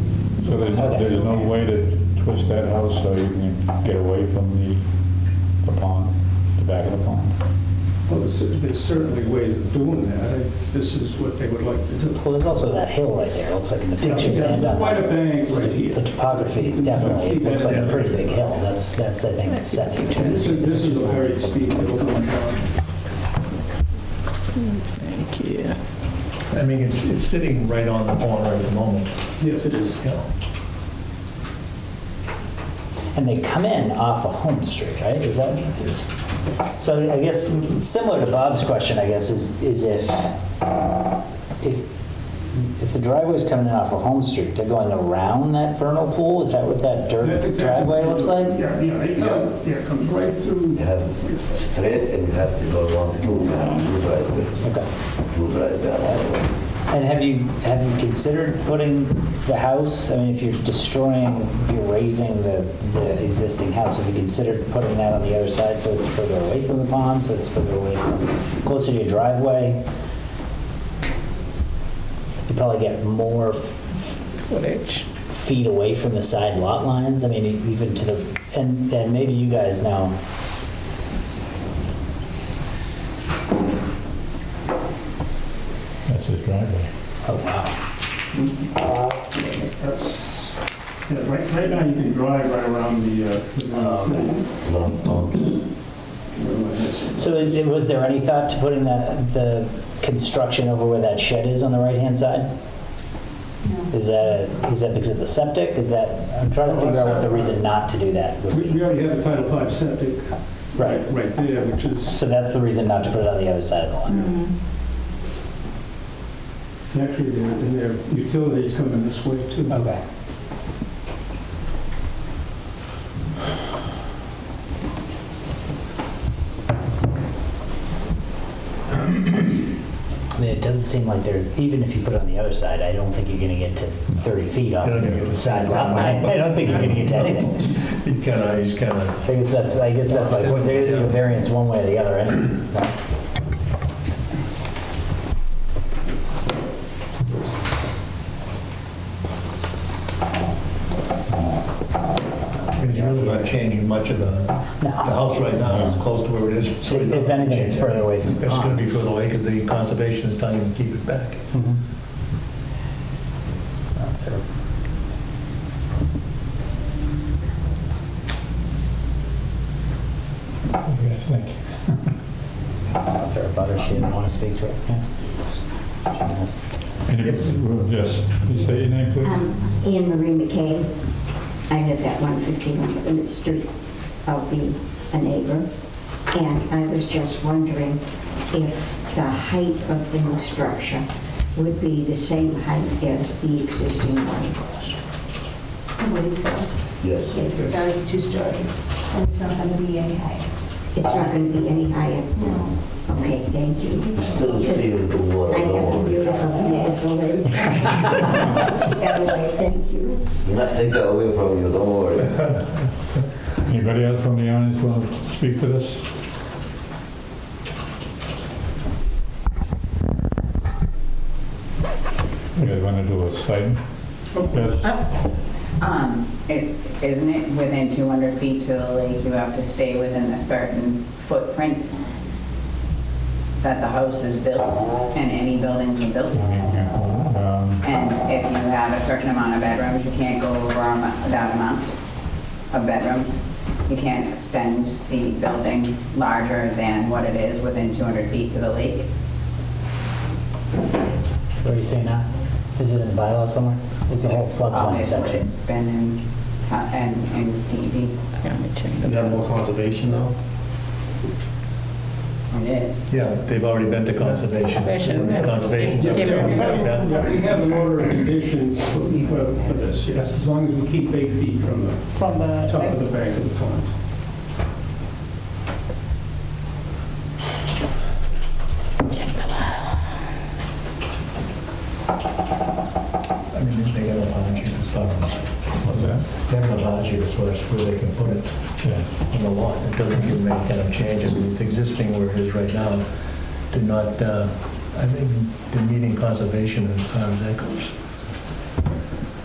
there's, how that- there's no way to twist that house so you can get away from the, the pond, the back of the pond? Well, there's there's certainly ways of doing that. It's- This is what they would like to do. Well, there's also that hill right there, it looks like in the pictures Yeah, and, Quite a uh, bank right here. the topography definitely looks like a pretty big hill, that's, that's, I think, setting And This is this is a very steep hill going down. Yeah. I mean, it's, it's sitting right on the pond right at the moment, Yes, it is. you know. And they come in off of Home Street, right? Is that? So I guess, similar to Bob's question, I guess, is, is if, if, if the driveway's coming in off of Home Street, they're going around that vernal pool? Is that what that That's dirt exactly driveway what looks they do. like? Yeah, yeah, it comes, yeah, it comes right through. You have to straight and you have to go along two now, two driveways, Okay. two driveways. And have you, have you considered putting the house, I mean, if you're destroying, if you're raising the, the existing house, have you considered putting that on the other side so it's further away from the pond, so it's further away from, closer to your driveway? You probably get more f- Footage. feet away from the side lot lines, I mean, even to the, and, and maybe you guys know. That's his driveway. Oh, wow. That's, yeah, right, right now you can drive right around the, uh, Um, the- Long pond, So it- it- was there any thought to putting the, the construction over where that shed is on the right-hand side? Is that, is that because of the septic? Is that, I'm trying to figure out what the reason not to do that would we be. we already have a Title Five septic. Right. Right there, which is, So that's the reason not to put it on the other side of the line. actually, their- and their utilities coming this way too. Okay. I mean, it doesn't seem like there, even if you put it on the other side, I don't think you're gonna get to 30 feet off You're not gonna get the to side lot line. I don't think you're gonna get to anything. It kind of, he's kind of, I guess that's, I guess that's my point, they're gonna do a variance one way or the other, and he's really not changing much of the, the no. house right now, is close to where it is. so he's not If anything, it's changing. further away from the It's going pond. to be further away because the conservation is telling him to keep it back. Mhm. What do you guys think? If there are butters, you don't wanna speak to it, yeah. Yes. And if- Yes. Yes, please state your name, please. Um, Anne Marie McKay. I live at 151 Plymouth Street. I'll be a neighbor. And I was just wondering if the height of the new structure would be the same height as the existing one. What is it? yes. Yes, it's already two stories, and it's not gonna be any higher. It's not going to be any higher? No. Okay, thank you. Still feel the water, I have don't a worry. beautiful, beautiful lake. Anyway, thank you. Nothing got away from you, don't worry. Anybody else from the audience want to speak to this? You guys want to do a site? Yes, Um, it- Isn't it within 200 feet to the lake, you have to stay within a certain footprint that the house is built and any buildings are built? I mean, yeah, um, And if you have a certain amount of bedrooms, you can't go over am- that amount of bedrooms. You can't extend the building larger than what it is within 200 feet to the lake. What are you saying now? Is it in the bylaw somewhere? Is the whole floodplain Obviously, section? It's been in, in, in DEP, Yeah, let me check Is that more conservation though? it is. Yeah, they've already been to conservation. Conservation, yeah. Conservation. Yeah. Yeah, we have, Yeah. yeah, we have an order of conditions for for this, yes, as long as we keep eight feet from the From top of the bank of the pond. I mean, they haven't allowed you as far as, what's that? they haven't allowed you as far as where they can put it Yeah. on the lot. It doesn't give them any kind of change. I mean, it's existing where it is right now. Did not, uh, I think, the meeting conservation as far as that goes.